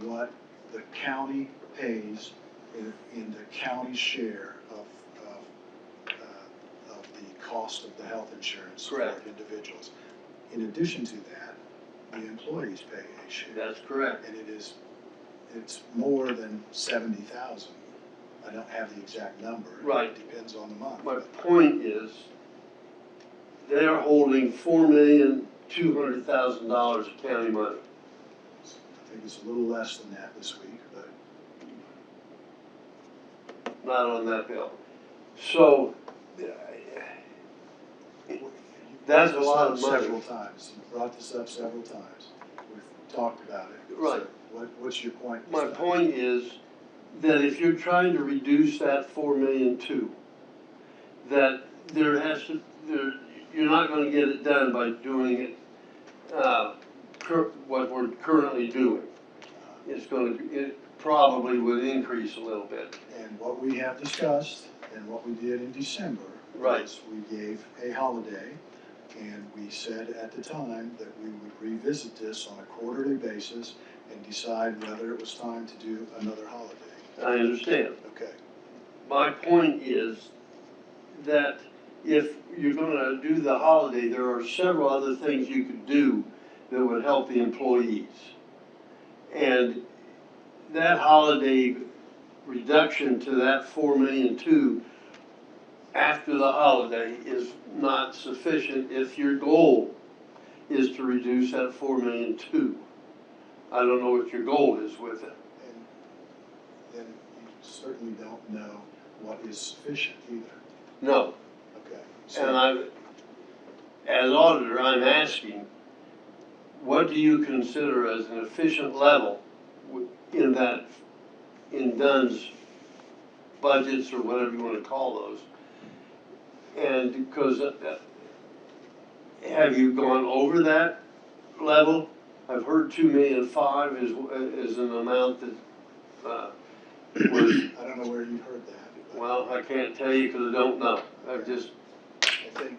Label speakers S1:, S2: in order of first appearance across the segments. S1: what the county pays in, in the county share of, of, uh, of the cost of the health insurance for
S2: Correct.
S1: individuals. In addition to that, the employees pay a share,
S2: That's correct.
S1: and it is, it's more than seventy thousand. I don't have the exact number.
S2: Right.
S1: It depends on the month.
S2: My point is, they're holding four million, two hundred thousand dollars of county money.
S1: I think it's a little less than that this week, but
S2: not on that bill. So, That's a lot of money.
S1: Several times, you brought this up several times, we've talked about it.
S2: Right.
S1: So What, what's your point?
S2: my point is that if you're trying to reduce that four million two, that there has to, there, you're not gonna get it done by doing it, uh, cur- what we're currently doing. It's gonna, it probably would increase a little bit.
S1: And what we have discussed and what we did in December.
S2: Right.
S1: was We gave a holiday and we said at the time that we would revisit this on a quarterly basis and decide whether it was time to do another holiday.
S2: I understand.
S1: Okay,
S2: My point is that if you're gonna do the holiday, there are several other things you could do that would help the employees. And that holiday reduction to that four million two after the holiday is not sufficient if your goal is to reduce that four million two. I don't know what your goal is with it.
S1: and then you certainly don't know what is sufficient either,
S2: No,
S1: okay? so-
S2: And I, as auditor, I'm asking, what do you consider as an efficient level w- in that, in Dunn's budgets or whatever you wanna call those? And, cause, uh, have you gone over that level? I've heard two million five is, is an amount that, uh, was,
S1: I don't know where you heard that. but
S2: well, I can't tell you, cause I don't know, I've just,
S1: I think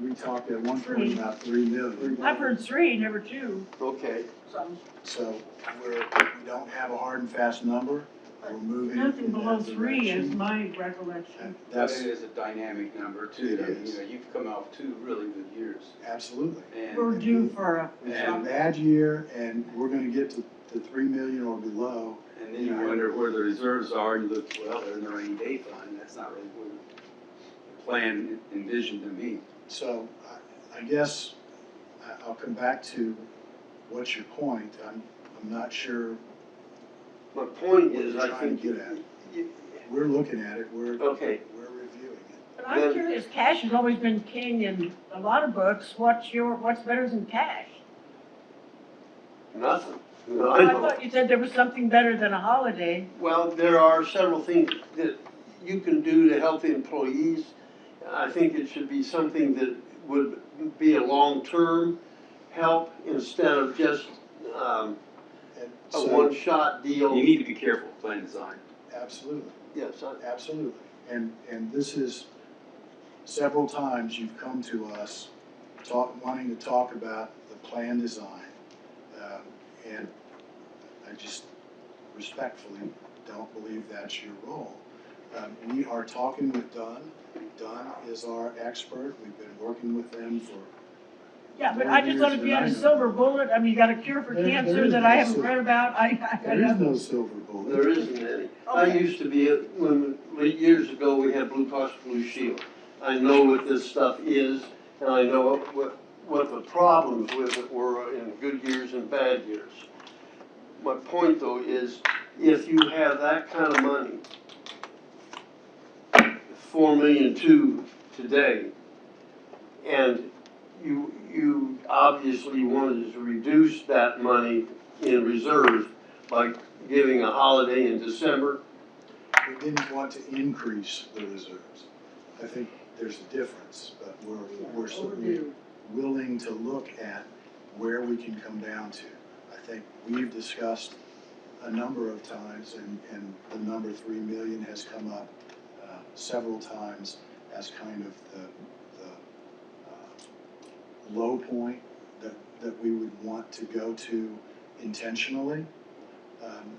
S1: we talked at one point about three million,
S3: I've heard three, never two,
S2: okay.
S3: so
S1: so we're, we don't have a hard and fast number, we're moving in that
S3: nothing below three is
S1: direction.
S3: my recollection.
S1: That-
S4: But it
S1: That's,
S4: is a dynamic number too,
S1: It
S4: I mean,
S1: is.
S4: you know, you've come off two really good years.
S1: absolutely.
S4: And
S3: We're due for a,
S1: We had a bad year, and we're gonna get to, to three million or below,
S4: and then you wonder where the reserves are, and you look, well, they're in the rainy day fund, that's not really what the plan envisioned to me.
S1: so I, I guess, I, I'll come back to what's your point, I'm, I'm not sure
S2: My point
S1: what
S2: is,
S1: you're
S2: I
S1: trying
S2: think.
S1: to get at. We're looking at it, we're, we're
S2: Okay,
S1: reviewing it.
S3: but I'm
S2: Then-
S3: curious, cash has always been king in a lot of books, what's your, what's better than cash?
S2: nothing.
S3: I thought you said there was something better than a holiday,
S2: Well, there are several things that you can do to help the employees. I think it should be something that would be a long-term help instead of just, um,
S1: And
S2: a
S1: so,
S2: one-shot
S4: You
S2: deal.
S4: need to be careful with plan design.
S1: absolutely.
S2: Yes, I-
S1: Absolutely, and, and this is, several times you've come to us, talk, wanting to talk about the plan design. um, And I just respectfully don't believe that's your role. Um, We are talking with Dunn, Dunn is our expert, we've been working with them for.
S3: yeah, but
S1: more
S3: I just
S1: years
S3: thought if you
S1: than
S3: had a
S1: I know.
S3: silver bullet, I mean, you got a cure for
S1: There- there
S3: cancer
S1: is
S3: that
S1: no
S3: I haven't
S1: silver-
S3: read about, I, I, I
S1: There is
S3: know.
S1: no silver bullet.
S2: there isn't any. I used to be, a- when, years ago, we had Blue Cross Blue Shield. I know what this stuff is, and I know what, what the problems with it were in good years and bad years. My point though is, if you have that kind of money, four million two today, and you, you obviously wanted to reduce that money in reserves by giving a holiday in December,
S1: we didn't want to increase the reserves. I think there's a difference, but we're, we're certainly willing to look at where we can come down to. I think we've discussed a number of times, and, and the number three million has come up uh, several times as kind of the, the uh, low point that, that we would want to go to intentionally. um,